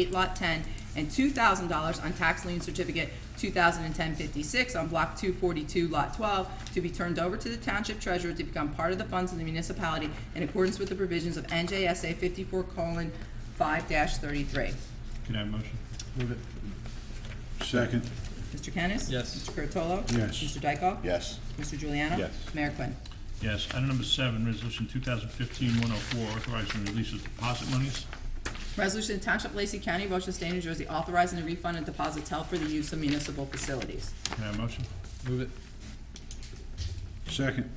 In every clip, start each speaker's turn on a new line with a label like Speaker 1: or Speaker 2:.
Speaker 1: 8, Lot 10, and $2,000 on tax lien certificate 2010-56 on Block 242, Lot 12, to be turned over to the Township Treasurer to become part of the funds of the municipality in accordance with the provisions of NJSA 54:5-33.
Speaker 2: Can I have a motion?
Speaker 3: Move it. Second,
Speaker 1: Mr. Kennis?
Speaker 2: Yes.
Speaker 1: Mr. Curatolo?
Speaker 3: Yes.
Speaker 1: Mr. Dykoff?
Speaker 3: yes.
Speaker 1: Mr. Juliano?
Speaker 3: Yes.
Speaker 1: Mayor Quinn.
Speaker 2: Yes. Item number seven, resolution 2015-104, authorizing the release of deposit monies.
Speaker 1: Resolution to Township of Lacey County, Ocean State, New Jersey, authorizing the refund of deposits held for the use of municipal facilities.
Speaker 2: Can I have a motion?
Speaker 4: Move it,
Speaker 3: Second,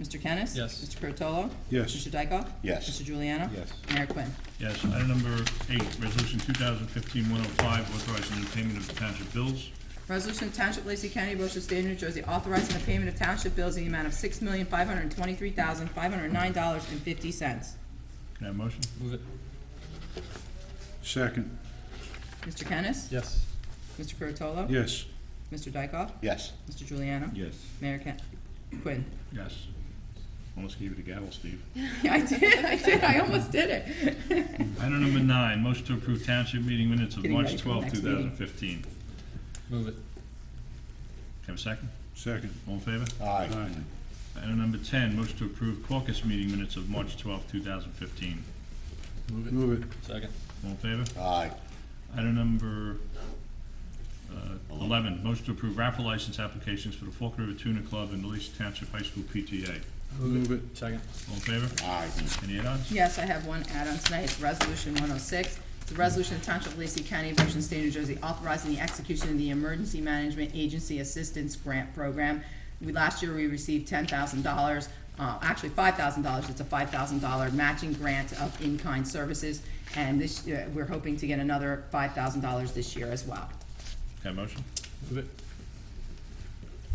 Speaker 1: Mr. Kennis?
Speaker 4: Yes.
Speaker 1: Mr. Curatolo?
Speaker 3: Yes.
Speaker 1: Mr. Dykoff?
Speaker 3: Yes.
Speaker 1: Mr. Juliano?
Speaker 3: Yes.
Speaker 1: Mayor Quinn.
Speaker 2: Yes. Item number eight, resolution 2015-105, authorizing the payment of township bills.
Speaker 1: Resolution of Township of Lacey County, Ocean State, New Jersey, authorizing the payment of township bills in the amount of six million, five hundred and twenty-three thousand, five hundred and nine dollars and fifty cents.
Speaker 2: Can I have a motion?
Speaker 4: move it,
Speaker 3: second,
Speaker 1: Mr. Kennis?
Speaker 4: yes.
Speaker 1: Mr. Curatolo?
Speaker 3: yes.
Speaker 1: Mr. Dykoff?
Speaker 3: Yes.
Speaker 1: Mr. Juliano?
Speaker 3: Yes.
Speaker 1: Mayor Ken- Quinn.
Speaker 2: Yes. Almost gave you the gavel, Steve.
Speaker 1: Yeah, I did, I did, I almost did it.
Speaker 2: Item number nine, motion to approve township meeting minutes of
Speaker 1: Getting
Speaker 2: March
Speaker 1: ready for the
Speaker 2: 12,
Speaker 1: next meeting.
Speaker 2: 2015. Can
Speaker 4: Move it,
Speaker 2: I have a second?
Speaker 3: Second,
Speaker 2: All in favor?
Speaker 5: Aye.
Speaker 3: aye.
Speaker 2: Item number 10, motion to approve caucus meeting minutes of March 12, 2015.
Speaker 4: move it,
Speaker 3: Move it,
Speaker 4: second,
Speaker 2: All in favor?
Speaker 5: Aye.
Speaker 2: Item number uh, 11, motion to approve raffle license applications for the Fork River Tuna Club and the Lacey Township High School PTA.
Speaker 3: move it,
Speaker 4: second,
Speaker 2: All in favor?
Speaker 5: Aye.
Speaker 2: Any add-ons?
Speaker 1: Yes, I have one add-on tonight, it's Resolution 106. It's a resolution of Township of Lacey County, Ocean State, New Jersey, authorizing the execution of the Emergency Management Agency Assistance Grant Program. We, last year, we received $10,000, uh, actually $5,000, it's a $5,000 matching grant of in-kind services, and this, year, we're hoping to get another $5,000 this year as well.
Speaker 2: Can I have a motion?
Speaker 4: move it,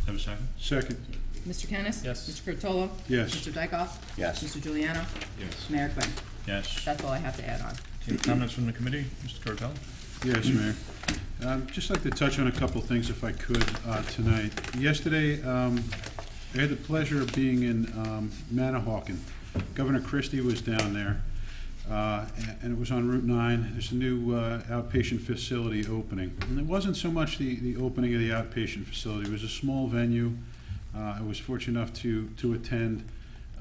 Speaker 2: Have a second?
Speaker 3: second,
Speaker 1: Mr. Kennis?
Speaker 4: Yes.
Speaker 1: Mr. Curtolo.
Speaker 3: Yes.
Speaker 1: Mr. Dykoff?
Speaker 5: Yes.
Speaker 1: Mr. Juliano?
Speaker 2: Yes.
Speaker 1: Mayor Quinn.
Speaker 2: Yes.
Speaker 1: That's all I have to add on.
Speaker 2: Any comments from the committee? Mr. Curatolo?
Speaker 3: yes, Mayor. Um, just like to touch on a couple of things if I could, uh, tonight. Yesterday, um, I had the pleasure of being in, um, Manahawkin. Governor Christie was down there, uh, and- and it was on Route nine. There's a new, uh, outpatient facility opening. And it wasn't so much the, the opening of the outpatient facility, it was a small venue. Uh, I was fortunate enough to, to attend,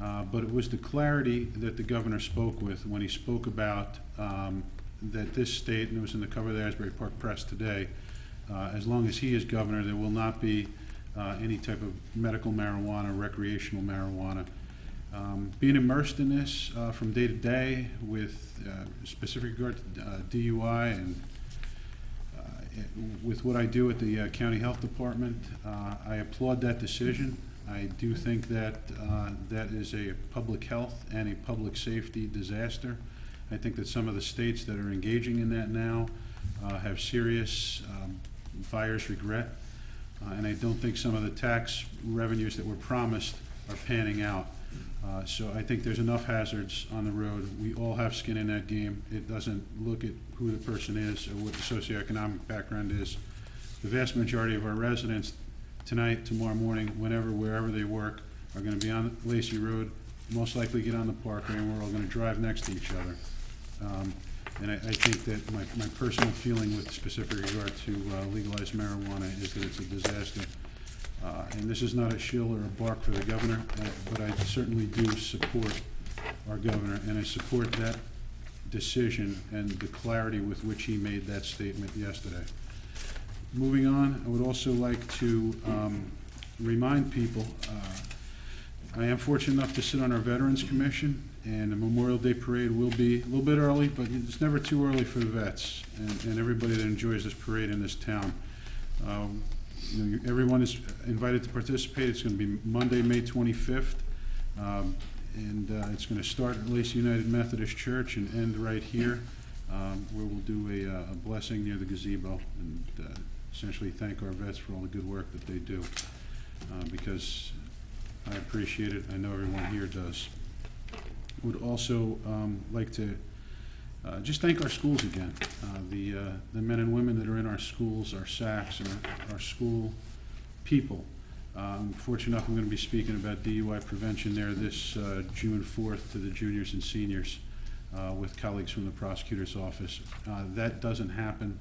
Speaker 3: uh, but it was the clarity that the governor spoke with when he spoke about um, that this state, and it was in the cover of the Asbury Park Press today, uh, as long as he is governor, there will not be uh, any type of medical marijuana, recreational marijuana. Um, Being immersed in this uh, from day to day with uh, specific regard to uh, DUI and uh, with what I do at the uh, County Health Department, uh, I applaud that decision. I do think that uh, that is a public health and a public safety disaster. I think that some of the states that are engaging in that now uh, have serious um, buyer's regret. Uh, And I don't think some of the tax revenues that were promised are panning out. Uh, So I think there's enough hazards on the road. We all have skin in that game. It doesn't look at who the person is or what the socioeconomic background is. The vast majority of our residents tonight, tomorrow morning, whenever, wherever they work, are gonna be on Lacey Road, most likely get on the parkway, and we're all gonna drive next to each other. Um, And I, I think that my, my personal feeling with specific regard to uh, legalized marijuana is that it's a disaster. Uh, And this is not a shill or a bark for the governor, uh, but I certainly do support our governor, and I support that decision and the clarity with which he made that statement yesterday. Moving on, I would also like to um, remind people, uh, I am fortunate enough to sit on our Veterans Commission, and the Memorial Day Parade will be a little bit early, but it's never too early for the vets and and everybody that enjoys this parade in this town. Um, you know, you- Everyone is invited to participate. It's going to be Monday, May 25th, um, and uh, it's going to start at Lacey United Methodist Church and end right here, um, where we'll do a uh, a blessing near the gazebo and uh, essentially thank our vets for all the good work that they do, uh, because I appreciate it. I know everyone here does. Would also um, like to uh, just thank our schools again. Uh, The, uh, the men and women that are in our schools, our SACs, and our- our school people. Um, Fortunate enough, I'm going to be speaking about DUI prevention there this uh, June 4th to the juniors and seniors. uh, with colleagues from the prosecutor's office. Uh, That doesn't happen